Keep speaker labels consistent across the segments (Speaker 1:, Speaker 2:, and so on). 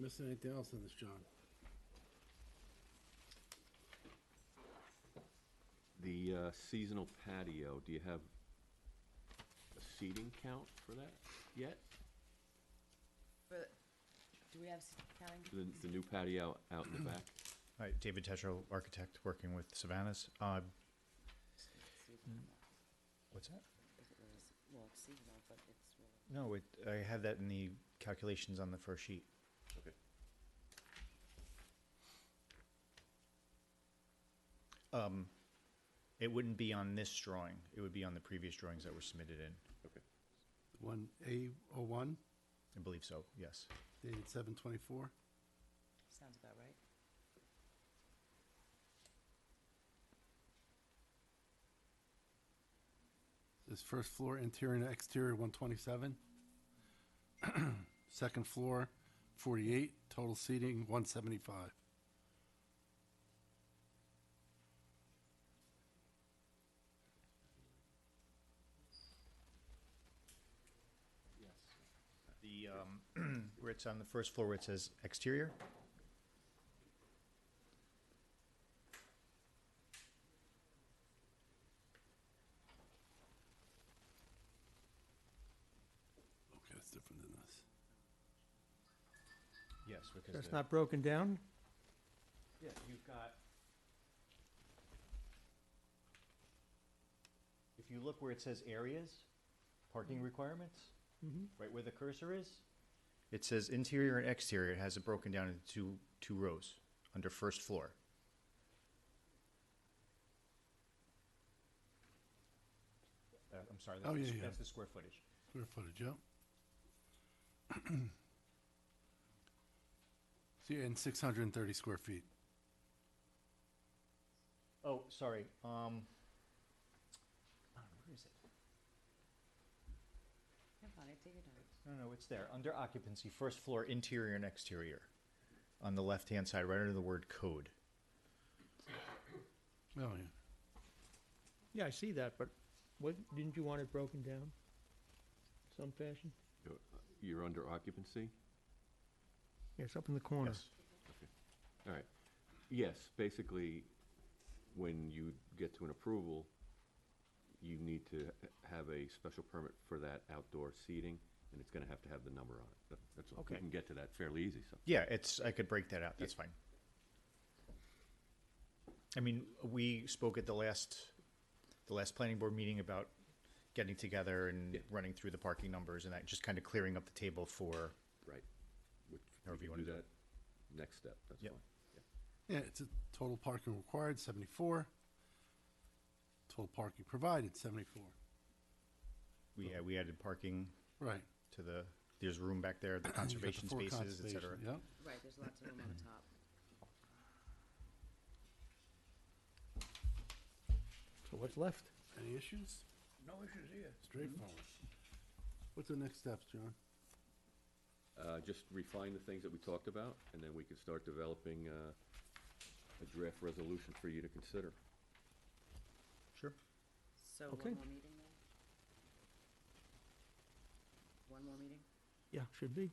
Speaker 1: missing anything else in this, John?
Speaker 2: The uh, seasonal patio, do you have a seating count for that yet?
Speaker 3: But, do we have s- counting?
Speaker 2: The, the new patio out in the back?
Speaker 4: Hi, David Tetra, architect, working with Savannah's. Uh,
Speaker 3: See if I'm not-
Speaker 4: what's that?
Speaker 3: if it was- Well, it's seasonal, but it's really.
Speaker 4: No, it, I had that in the calculations on the first sheet.
Speaker 2: Okay.
Speaker 4: Um, It wouldn't be on this drawing. It would be on the previous drawings that were submitted in.
Speaker 2: Okay.
Speaker 1: One A oh one,
Speaker 4: I believe so, yes.
Speaker 1: dated seven twenty-four.
Speaker 3: Sounds about right.
Speaker 1: This first floor interior and exterior one twenty-seven. Second floor forty-eight, total seating one seventy-five.
Speaker 4: The, um, where it's on the first floor, where it says exterior,
Speaker 1: Okay, that's different than this.
Speaker 4: yes, because.
Speaker 5: That's
Speaker 4: the-
Speaker 5: not broken down?
Speaker 4: Yeah, you've got. If you look where it says areas, parking requirements, right where the cursor is. Mm-hmm. It says interior and exterior. It has it broken down into two, two rows under first floor. Uh, I'm sorry,
Speaker 1: Oh,
Speaker 4: that's, the
Speaker 1: yeah,
Speaker 4: s-
Speaker 1: yeah.
Speaker 4: that's the square footage.
Speaker 1: Square footage, yep. See, and six hundred and thirty square feet.
Speaker 4: Oh, sorry, um. Come on, Ah, where is it?
Speaker 3: You're fine, take your time.
Speaker 4: No, no, it's there. Under occupancy, first floor, interior and exterior. On the left-hand side, right under the word code.
Speaker 1: Oh, yeah.
Speaker 5: Yeah, I see that, but what, didn't you want it broken down some fashion?
Speaker 2: You're- You're under occupancy?
Speaker 5: Yes, up in the corner.
Speaker 4: Yes.
Speaker 2: All right. Yes, basically, when you get to an approval, you need to h- have a special permit for that outdoor seating, and it's gonna have to have the number on it. That- That's, all. we
Speaker 5: Okay.
Speaker 2: can get to that fairly easy, so.
Speaker 4: Yeah, it's, I could break that out, that's fine. I mean, we spoke at the last, the last planning board meeting about getting together and
Speaker 2: Yeah.
Speaker 4: running through the parking numbers and that, just kind of clearing up the table for,
Speaker 2: Right. Which,
Speaker 4: However
Speaker 2: we can
Speaker 4: you wanna
Speaker 2: do
Speaker 4: do
Speaker 2: that next step, that's
Speaker 4: Yep.
Speaker 2: fine. Yeah.
Speaker 1: Yeah, it's a total parking required, seventy-four. Total parking provided, seventy-four.
Speaker 4: we, yeah, we added parking
Speaker 1: Right.
Speaker 4: to the, there's room back there, the
Speaker 1: You got the
Speaker 4: conservation
Speaker 1: four
Speaker 4: spaces, et cetera.
Speaker 1: conservation, Yep.
Speaker 3: Right, there's lots of room on the top.
Speaker 5: So what's left?
Speaker 1: Any issues?
Speaker 6: No issues here.
Speaker 1: Straightforward. What's the next steps, John?
Speaker 2: Uh, just refine the things that we talked about, and then we can start developing, uh, a draft resolution for you to consider.
Speaker 4: Sure.
Speaker 3: So
Speaker 5: Okay.
Speaker 3: one more meeting then? One more meeting?
Speaker 5: Yeah, should be.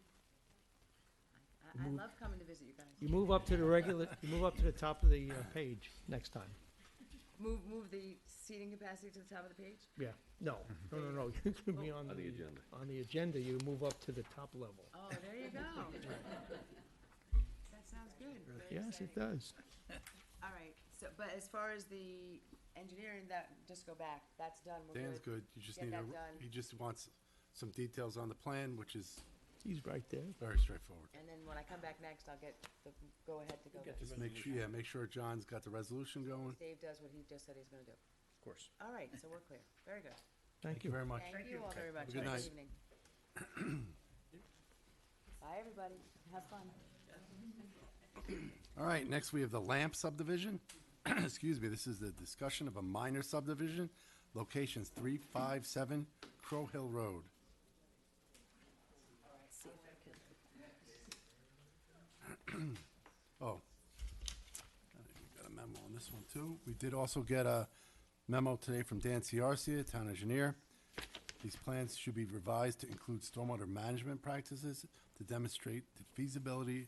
Speaker 3: I, I love coming to visit you guys.
Speaker 5: You move up to the regular, you move up to the top of the uh, page next time.
Speaker 3: Move, move the seating capacity to the top of the page?
Speaker 5: Yeah, no, no, no, no, you can be
Speaker 2: On
Speaker 5: on
Speaker 2: the
Speaker 5: the,
Speaker 2: agenda.
Speaker 5: on the agenda, you move up to the top level.
Speaker 3: Oh, there you go. That sounds good. Very
Speaker 5: Yes,
Speaker 3: exciting.
Speaker 5: it does.
Speaker 3: All right, so, but as far as the engineering, that, just go back, that's done, we're good.
Speaker 1: Dan's good. You just
Speaker 3: Get
Speaker 1: need a,
Speaker 3: that done.
Speaker 1: he just wants some details on the plan, which is
Speaker 5: He's right there.
Speaker 1: very straightforward.
Speaker 3: And then when I come back next, I'll get the go-ahead to go there.
Speaker 1: Just make sure, yeah, make sure John's got the resolution going.
Speaker 3: Dave does what he just said he's gonna do.
Speaker 4: Of course.
Speaker 3: All right, so we're clear, very good.
Speaker 5: Thank you.
Speaker 1: very much.
Speaker 3: Thank you all very much,
Speaker 1: Good
Speaker 3: have a
Speaker 1: night.
Speaker 3: good evening. Bye, everybody, have fun.
Speaker 1: All right, next we have the Lamp subdivision. Excuse me, this is the discussion of a minor subdivision, locations three, five, seven, Crow Hill Road. Oh. We got a memo on this one too. We did also get a memo today from Dan Ciarcia, town engineer. These plans should be revised to include stormwater management practices to demonstrate the feasibility